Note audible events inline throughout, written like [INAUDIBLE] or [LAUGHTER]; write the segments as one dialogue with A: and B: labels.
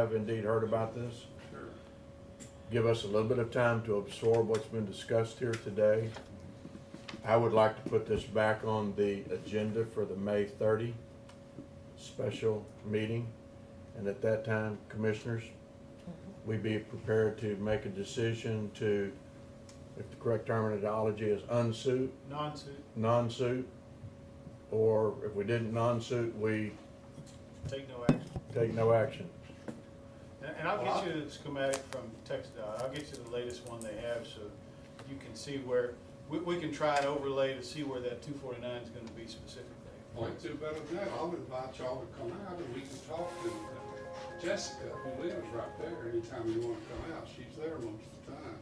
A: have indeed heard about this. Give us a little bit of time to absorb what's been discussed here today. I would like to put this back on the agenda for the May 30 special meeting. And at that time, commissioners, we be prepared to make a decision to, if the correct terminology is unsuit,
B: Non-suit,
A: non-suit, or if we didn't non-suit, we
B: take no action.
A: take no action.
B: And and I'll get you the schematic from TexDOT. I'll get you the latest one they have, so you can see where, we, we can try and overlay to see where that two forty-nine is gonna be specifically.
C: Point two better than that, I'll invite y'all to come out and we can talk to Jessica, who lives right there, anytime you wanna come out, she's there most of the time.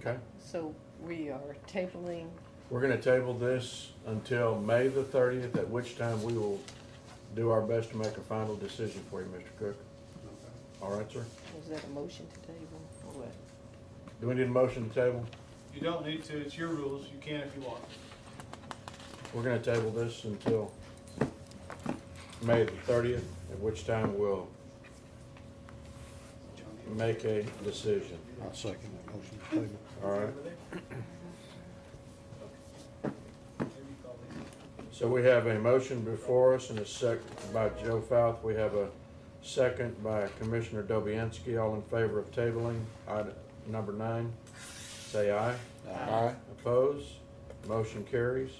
A: Okay?
D: So we are tabling,
A: We're gonna table this until May the thirtieth, at which time we will do our best to make a final decision for you, Mr. Cook. All right, sir?
D: was that a motion to table or what?
A: Do we need a motion to table?
B: You don't need to, it's your rules, you can if you want.
A: We're gonna table this until May the thirtieth, at which time we'll make a decision.
E: I'll second that motion to table.
A: All right? So we have a motion before us and a sec, by Joe Fouth. We have a second by Commissioner Dobianski. All in favor of tabling item number nine, say aye. Aye. Opposed? Motion carries.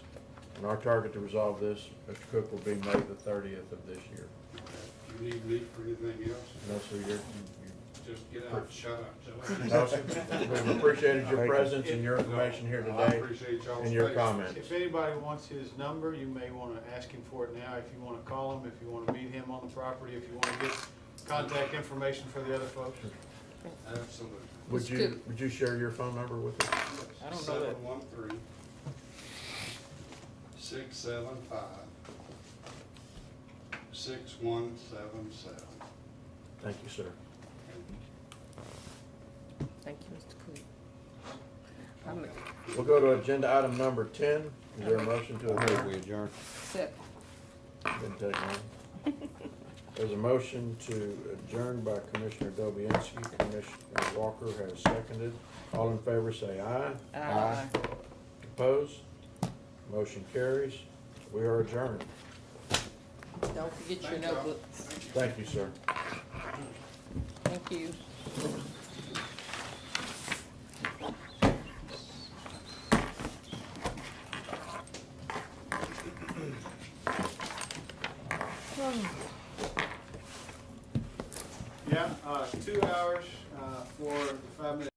A: And our target to resolve this, Mr. Cook, will be May the thirtieth of this year.
C: If you need me for anything else,
A: And that's the year.
C: just get out and shut up, Joe.
A: [LAUGHS] No, sir. We've appreciated your presence and your information here
C: I
A: today
C: appreciate y'all's
A: and your
C: patience.
A: comments.
B: If anybody wants his number, you may wanna ask him for it now, if you wanna call him, if you wanna meet him on the property, if you wanna get contact information for the other folks.
C: Absolutely.
A: Would you, would you share your phone number with us?
D: I don't know that-
C: Seven one three, six seven five, six one seven seven.
A: Thank you, sir.
D: Thank you, Mr. Cook. I'm
A: We'll go to agenda item number ten. Is there a motion to adjourn?
E: we adjourn.
D: accept.
A: Didn't take long. There's a motion to adjourn by Commissioner Dobianski. Commissioner Walker has seconded. All in favor, say aye.
D: Aye.
A: Opposed? Motion carries. We are adjourned.
D: Don't forget your
C: Thank y'all.
D: notebooks.
C: Thank you.
A: Thank you, sir.
C: [CLEARS THROAT]
D: Thank you. Hmm.
B: Yeah, uh, two hours, uh, for the five minute